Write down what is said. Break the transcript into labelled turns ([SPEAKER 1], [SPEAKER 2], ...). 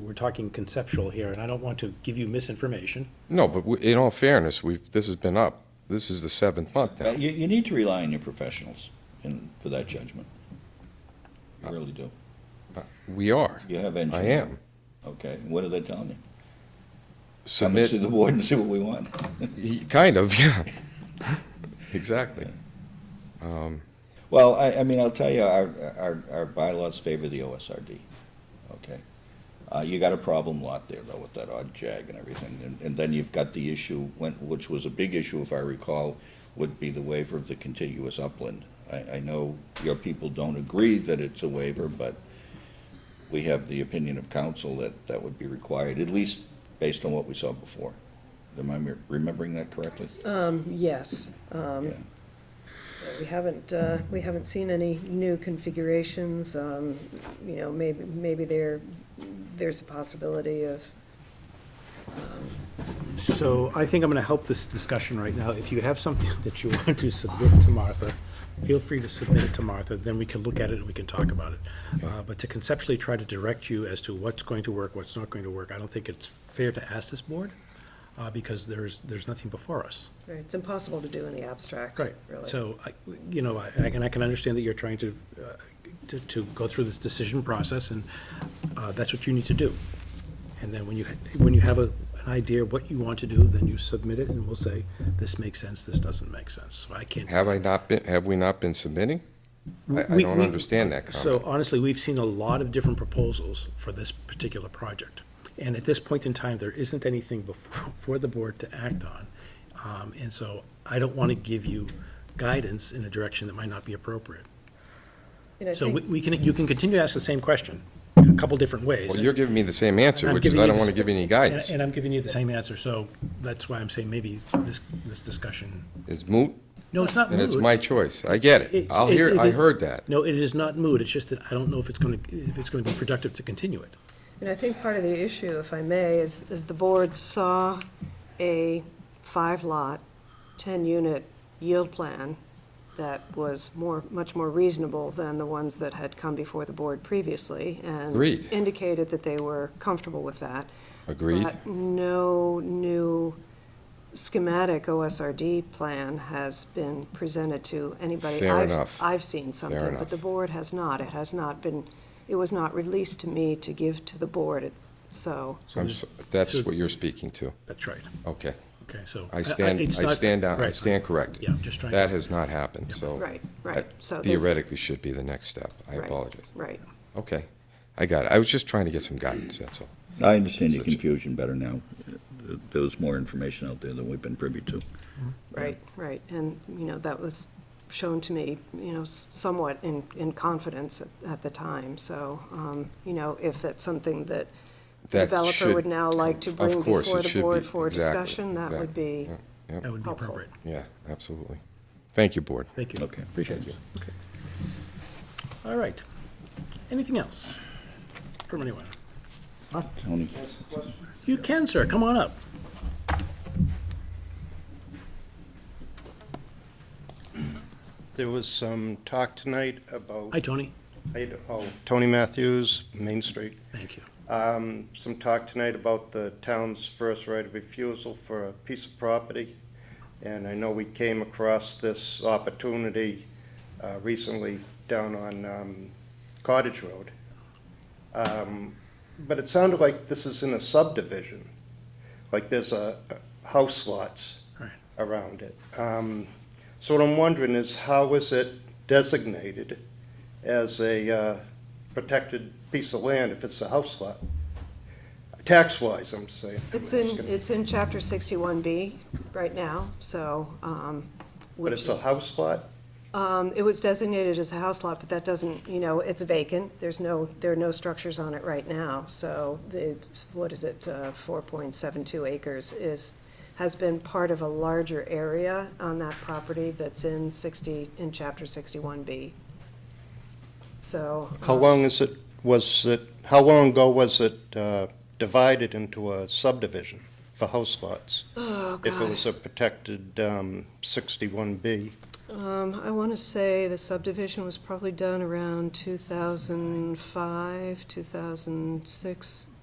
[SPEAKER 1] we're talking conceptual here, and I don't want to give you misinformation.
[SPEAKER 2] No, but we- in all fairness, we've, this has been up, this is the seventh month now.
[SPEAKER 3] You, you need to rely on your professionals in, for that judgment. You really do.
[SPEAKER 2] We are.
[SPEAKER 3] You have
[SPEAKER 2] Uh, I
[SPEAKER 3] engineers.
[SPEAKER 2] am.
[SPEAKER 3] Okay, what are they telling you? Come
[SPEAKER 2] Submit.
[SPEAKER 3] into the board and see what we want.
[SPEAKER 2] Y- Kind of, yeah. Exactly.
[SPEAKER 3] Well, I, I mean, I'll tell you, our, our, our bylaws favor the OSRD, okay? Uh, you got a problem lot there though with that odd jag and everything, and, and then you've got the issue, when, which was a big issue if I recall, would be the waiver of the contiguous upland. I, I know your people don't agree that it's a waiver, but we have the opinion of council that that would be required, at least based on what we saw before. Am I me- remembering that correctly?
[SPEAKER 4] Yes, um,
[SPEAKER 3] Yeah.
[SPEAKER 4] we haven't, uh, we haven't seen any new configurations. um, You know, maybe, maybe there, there's a possibility of,
[SPEAKER 1] So I think I'm going to help this discussion right now. If you have something that you want to submit to Martha, feel free to submit it to Martha, then we can look at it and we can talk about it. Uh, But to conceptually try to direct you as to what's going to work, what's not going to work, I don't think it's fair to ask this board, uh, because there's, there's nothing before us.
[SPEAKER 4] it's impossible to do in the abstract, really.
[SPEAKER 1] Right, so, I- you know, I- and I can understand that you're trying to, uh, to- to go through this decision process, and uh, that's what you need to do. And then when you, when you have a- an idea of what you want to do, then you submit it, and we'll say, this makes sense, this doesn't make sense. So I can't.
[SPEAKER 2] Have I not been, have we not been submitting? I, I
[SPEAKER 1] we-
[SPEAKER 2] don't
[SPEAKER 1] we-
[SPEAKER 2] understand that
[SPEAKER 1] So
[SPEAKER 2] comment.
[SPEAKER 1] honestly, we've seen a lot of different proposals for this particular project. And at this point in time, there isn't anything before, for the board to act on. Um, And so I don't want to give you guidance in a direction that might not be appropriate.
[SPEAKER 4] And I
[SPEAKER 1] So we-
[SPEAKER 4] think,
[SPEAKER 1] we can, you can continue to ask the same question in a couple different ways.
[SPEAKER 2] Well, you're giving me the same answer,
[SPEAKER 1] I'm
[SPEAKER 2] which is
[SPEAKER 1] giving
[SPEAKER 2] I
[SPEAKER 1] you
[SPEAKER 2] don't
[SPEAKER 1] the
[SPEAKER 2] want to
[SPEAKER 1] s-
[SPEAKER 2] give you any
[SPEAKER 1] And-
[SPEAKER 2] guidance.
[SPEAKER 1] And I'm giving you the same answer, so that's why I'm saying maybe this, this discussion,
[SPEAKER 2] It's moot,
[SPEAKER 1] no, it's not moot.
[SPEAKER 2] and it's my choice. I get it.
[SPEAKER 1] It's-
[SPEAKER 2] I'll
[SPEAKER 1] it-
[SPEAKER 2] hear,
[SPEAKER 1] it
[SPEAKER 2] I
[SPEAKER 1] is-
[SPEAKER 2] heard that.
[SPEAKER 1] No, it is not moot, it's just that I don't know if it's going to, if it's going to be productive to continue it.
[SPEAKER 4] and I think part of the issue, if I may, is, is the board saw a five-lot, 10-unit yield plan that was more, much more reasonable than the ones that had come before the board previously, and
[SPEAKER 2] Agreed.
[SPEAKER 4] indicated that they were comfortable with that.
[SPEAKER 2] Agreed?
[SPEAKER 4] But no new schematic OSRD plan has been presented to anybody.
[SPEAKER 2] Fair
[SPEAKER 4] I've-
[SPEAKER 2] enough.
[SPEAKER 4] I've seen something,
[SPEAKER 2] enough.
[SPEAKER 4] but the board has not. It has not been, it was not released to me to give to the board, It- so.
[SPEAKER 2] I'm s- That's what you're speaking to.
[SPEAKER 1] That's right,
[SPEAKER 2] Okay.
[SPEAKER 1] okay, so.
[SPEAKER 2] I stand,
[SPEAKER 1] it's
[SPEAKER 2] I
[SPEAKER 1] not-
[SPEAKER 2] stand down, I
[SPEAKER 1] right.
[SPEAKER 2] stand corrected.
[SPEAKER 1] Yeah, I'm just trying to-
[SPEAKER 2] That has not happened, so.
[SPEAKER 4] Right, right.
[SPEAKER 2] that
[SPEAKER 4] So there's-
[SPEAKER 2] Theoretically should be the next step. I
[SPEAKER 4] right,
[SPEAKER 2] apologize.
[SPEAKER 4] Right.
[SPEAKER 2] Okay, I got it. I was just trying to get some guidance, that's all.
[SPEAKER 3] I understand your
[SPEAKER 2] Such-
[SPEAKER 3] confusion better now. There was more information out there than we've been privy to.
[SPEAKER 4] Right, right, and, you know, that was shown to me, you know, s- somewhat in, in confidence at, at the time, so, um, you know, if that's something that the
[SPEAKER 2] That
[SPEAKER 4] developer
[SPEAKER 2] should-
[SPEAKER 4] would now like to
[SPEAKER 2] of
[SPEAKER 4] bring
[SPEAKER 2] course,
[SPEAKER 4] before
[SPEAKER 2] it
[SPEAKER 4] the
[SPEAKER 2] should
[SPEAKER 4] board
[SPEAKER 2] be.
[SPEAKER 4] for
[SPEAKER 2] Exactly,
[SPEAKER 4] discussion, that would
[SPEAKER 2] exactly.
[SPEAKER 4] be,
[SPEAKER 2] Yeah, yeah.
[SPEAKER 1] That would be
[SPEAKER 4] Helpful.
[SPEAKER 1] appropriate,
[SPEAKER 2] Yeah, absolutely. Thank you, Board.
[SPEAKER 1] thank you.
[SPEAKER 3] Okay, appreciate you.
[SPEAKER 1] All right, anything else from anyone?
[SPEAKER 3] Tony,
[SPEAKER 1] You can, sir, come on up.
[SPEAKER 5] There was some talk tonight about,
[SPEAKER 1] Hi, Tony,
[SPEAKER 5] I- oh, Tony Matthews, Main Street.
[SPEAKER 1] thank you.
[SPEAKER 5] Um, Some talk tonight about the town's first right of refusal for a piece of property. And I know we came across this opportunity uh, recently down on um, Cottage Road. Um, But it sounded like this is in a subdivision, like there's a, a- house lots
[SPEAKER 1] Right.
[SPEAKER 5] around it. Um, So what I'm wondering is how is it designated as a uh, protected piece of land if it's a house lot? Tax-wise, I'm saying.
[SPEAKER 4] it's
[SPEAKER 5] I'm
[SPEAKER 4] in,
[SPEAKER 5] asking.
[SPEAKER 4] it's in chapter sixty-one B right now, so, um.
[SPEAKER 5] But
[SPEAKER 4] which
[SPEAKER 5] it's a
[SPEAKER 4] is-
[SPEAKER 5] house lot?
[SPEAKER 4] Um, it was designated as a house lot, but that doesn't, you know, it's vacant, there's no, there are no structures on it right now, so the, what is it, uh, four point seven two acres is, has been part of a larger area on that property that's in sixty, in chapter sixty-one B. So. uh,
[SPEAKER 5] How long is it, was it, how long ago was it uh, divided into a subdivision for house lots?
[SPEAKER 4] Oh,
[SPEAKER 5] If it
[SPEAKER 4] God,
[SPEAKER 5] was a protected um, 61B?
[SPEAKER 4] um, I wanna say the subdivision was probably done around two thousand five, two thousand six,